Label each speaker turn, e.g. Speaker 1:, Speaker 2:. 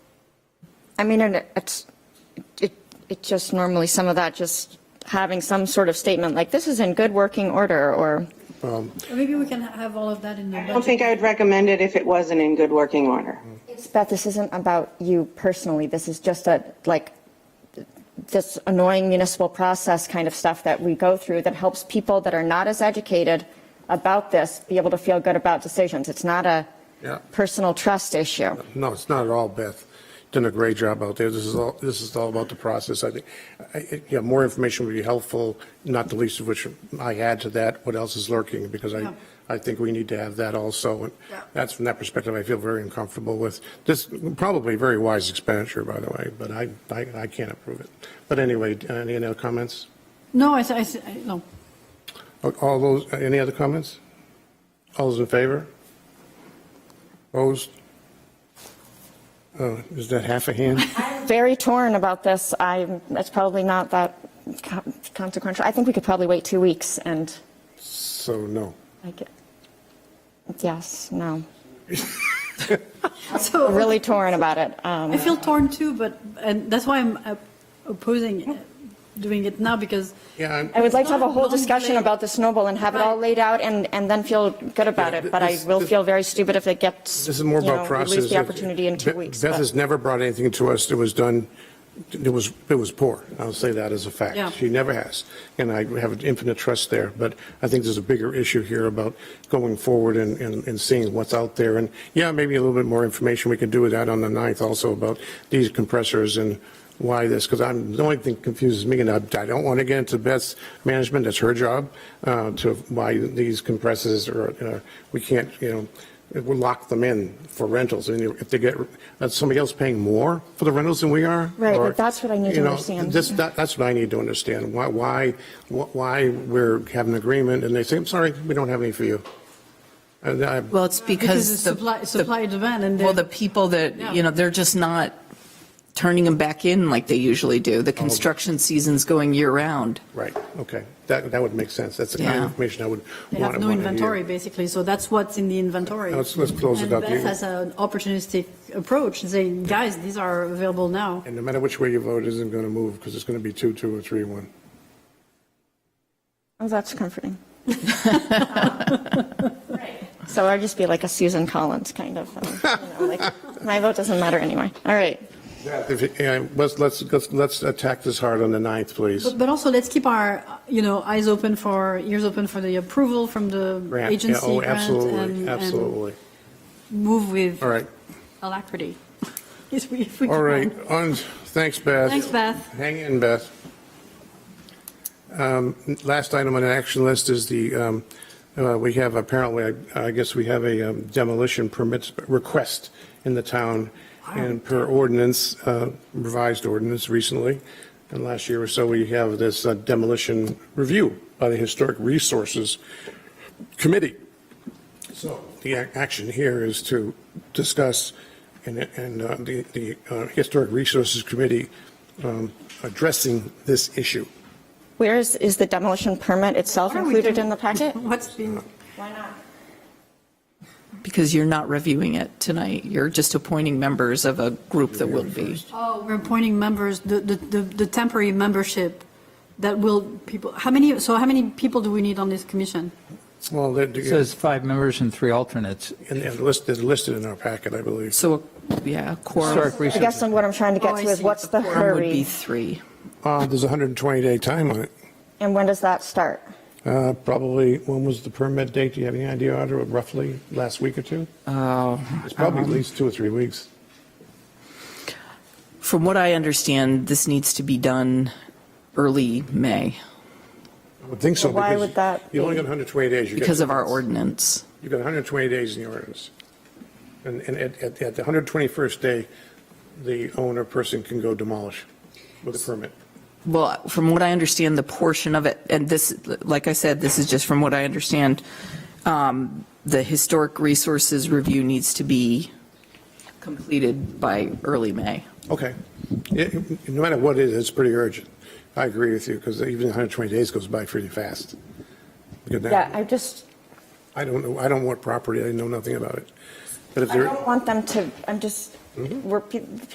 Speaker 1: I mean, and it's, it, it just normally, some of that, just having some sort of statement like, this is in good working order, or,
Speaker 2: Maybe we can have all of that in the
Speaker 3: I don't
Speaker 2: budget.
Speaker 3: think I would recommend it if it wasn't in good working order.
Speaker 1: Beth, this isn't about you personally, this is just a, like, this annoying municipal process kind of stuff that we go through that helps people that are not as educated about this be able to feel good about decisions. It's not a
Speaker 4: Yeah.
Speaker 1: personal trust issue.
Speaker 4: No, it's not at all, Beth. Done a great job out there. This is all, this is all about the process. I think, I- I- yeah, more information would be helpful, not the least of which I add to that, what else is lurking, because I,
Speaker 2: Yeah.
Speaker 4: I think we need to have that also. And
Speaker 2: Yeah.
Speaker 4: That's, from that perspective, I feel very uncomfortable with. This, probably very wise expenditure, by the way, but I, I, I can't approve it. But anyway, any other comments?
Speaker 2: No, I, s- I s- I- no.
Speaker 4: All those, any other comments? All those in favor? Opposed? Oh, Is that half a hand?
Speaker 1: Very torn about this, I'm, it's probably not that con- consequential. I think we could probably wait two weeks and.
Speaker 4: So no.
Speaker 1: I get, yes, no.
Speaker 2: So
Speaker 1: Really torn about it.
Speaker 2: I
Speaker 1: Um,
Speaker 2: feel torn too, but, and that's why I'm uh, opposing uh, doing it now because
Speaker 4: Yeah, I'm-
Speaker 1: I would like to have a whole
Speaker 2: Don't
Speaker 1: discussion
Speaker 2: delay.
Speaker 1: about the snowball and have it all
Speaker 2: Right.
Speaker 1: laid out and, and then feel good about
Speaker 4: Yeah,
Speaker 1: it.
Speaker 4: th-
Speaker 1: But I
Speaker 4: this-
Speaker 1: will
Speaker 4: this-
Speaker 1: feel very stupid if it gets,
Speaker 4: this is more
Speaker 1: you know,
Speaker 4: about
Speaker 1: we
Speaker 4: process.
Speaker 1: lose the opportunity in two
Speaker 4: Beth-
Speaker 1: weeks.
Speaker 4: Beth
Speaker 1: but-
Speaker 4: has never brought anything to us that was done, it was, it was poor. I'll say that as a fact.
Speaker 2: Yeah.
Speaker 4: She never has. And I have an infinite trust there. But I think there's a bigger issue here about going forward and, and and seeing what's out there. And yeah, maybe a little bit more information. We can do with that on the 9th also about these compressors and why this, because I'm, the only thing confuses me, and I I don't want to get into Beth's management, that's her job, uh, to why these compressors are, uh, we can't, you know, it will lock them in for rentals, and if they get, that's somebody else paying more for the rentals than we are?
Speaker 1: Right, but
Speaker 4: or-
Speaker 1: that's what I need to
Speaker 4: you know,
Speaker 1: understand.
Speaker 4: This, that, that's what I need to understand, why, why, wh- why we're having an agreement, and they say, I'm sorry, we don't have any for you. Uh, And I,
Speaker 5: Well, it's
Speaker 2: because it's
Speaker 5: because the.
Speaker 2: supply,
Speaker 5: the-
Speaker 2: supply demand and
Speaker 5: Well,
Speaker 2: then
Speaker 5: the people
Speaker 2: Yeah.
Speaker 5: that, you know, they're just not turning them back in like they usually do.
Speaker 2: Oh.
Speaker 5: The construction season's going year-round.
Speaker 4: right, okay, that, that would make sense, that's the kind
Speaker 5: Yeah.
Speaker 4: of information I would
Speaker 2: they
Speaker 4: want
Speaker 2: have
Speaker 4: to
Speaker 2: no inventory
Speaker 4: hear.
Speaker 2: basically. So that's what's in the inventory.
Speaker 4: Let's, let's close
Speaker 2: And
Speaker 4: it up.
Speaker 2: Beth has an opportunistic approach saying, guys, these are available now.
Speaker 4: And no matter which way you vote, it isn't going to move, because it's going to be two, two, or three, one.
Speaker 1: Oh, that's comforting. So I'd just be like a Susan Collins kind of, um, you know, like, my vote doesn't matter anyway. All right.
Speaker 4: If it- yeah, Let's, let's, let's- let's attack this hard on the 9th, please.
Speaker 2: But, but also let's keep our, uh, you know, eyes open for, ears open for the approval from the
Speaker 4: Grant, yeah,
Speaker 2: agency
Speaker 4: Oh,
Speaker 2: grant and-
Speaker 4: absolutely,
Speaker 2: and
Speaker 4: absolutely.
Speaker 2: move with
Speaker 4: All right,
Speaker 2: alacrity. Yes, we- if we
Speaker 4: all
Speaker 2: can.
Speaker 4: right, on, thanks, Beth.
Speaker 2: Thanks, Beth.
Speaker 4: Hang in, Beth. Um, Last item on the action list is the, um, uh, we have apparently, I I guess we have a um, demolition permits request in the town, and per ordinance, uh, revised ordinance recently, and last year or so, we have this uh, demolition review by the Historic Resources Committee. So the ac- action here is to discuss, and, and uh, the, the uh, Historic Resources Committee um, addressing this issue.
Speaker 1: Where is, is the demolition permit itself
Speaker 2: Why don't we
Speaker 1: included
Speaker 2: do-
Speaker 1: in the packet?
Speaker 2: What's been,
Speaker 1: Why not?
Speaker 5: Because you're not reviewing it tonight. You're just appointing members of a group that will be.
Speaker 2: oh, we're appointing members, the, the, the the temporary membership that will, people, how many, so how many people do we need on this commission?
Speaker 4: Well, they're,
Speaker 6: It says five members and three alternates.
Speaker 4: and and listed, listed in our packet, I believe.
Speaker 5: So, yeah, a quorum
Speaker 6: Historic
Speaker 1: I
Speaker 6: research.
Speaker 1: guess then what I'm trying to
Speaker 2: Oh,
Speaker 1: get
Speaker 2: I
Speaker 1: to is
Speaker 2: see.
Speaker 1: what's
Speaker 2: The
Speaker 1: the
Speaker 5: quorum would be
Speaker 1: hurry?
Speaker 5: three.
Speaker 4: Uh, There's a 120-day time on it.
Speaker 1: And when does that start?
Speaker 4: Uh, Probably, when was the permit date? Do you have any idea, Audra, roughly last week or two?
Speaker 5: Uh,
Speaker 4: It's probably at least two or three weeks.
Speaker 5: From what I understand, this needs to be done early May
Speaker 4: I would think so.
Speaker 1: Well, why
Speaker 4: because
Speaker 1: would that
Speaker 4: You only
Speaker 1: be?
Speaker 4: got 120 days. You get
Speaker 5: because
Speaker 4: two
Speaker 5: of our
Speaker 4: months.
Speaker 5: ordinance.
Speaker 4: You've got 120 days in the ordinance. And, and at, at at the 121st day, the owner person can go demolish with a permit.
Speaker 5: Well, from what I understand, the portion of it, and this, like I said, this is just from what I understand, um, the historic resources review needs to be completed by early May.
Speaker 4: Okay. It- it- No matter what it is, it's pretty urgent. I agree with you, because even 120 days goes by pretty fast. Because now-
Speaker 1: Yeah, I just,
Speaker 4: I don't know, I don't want property, I know nothing about it. But if
Speaker 1: I
Speaker 4: there.
Speaker 1: don't want them to, I'm just, we're, pe-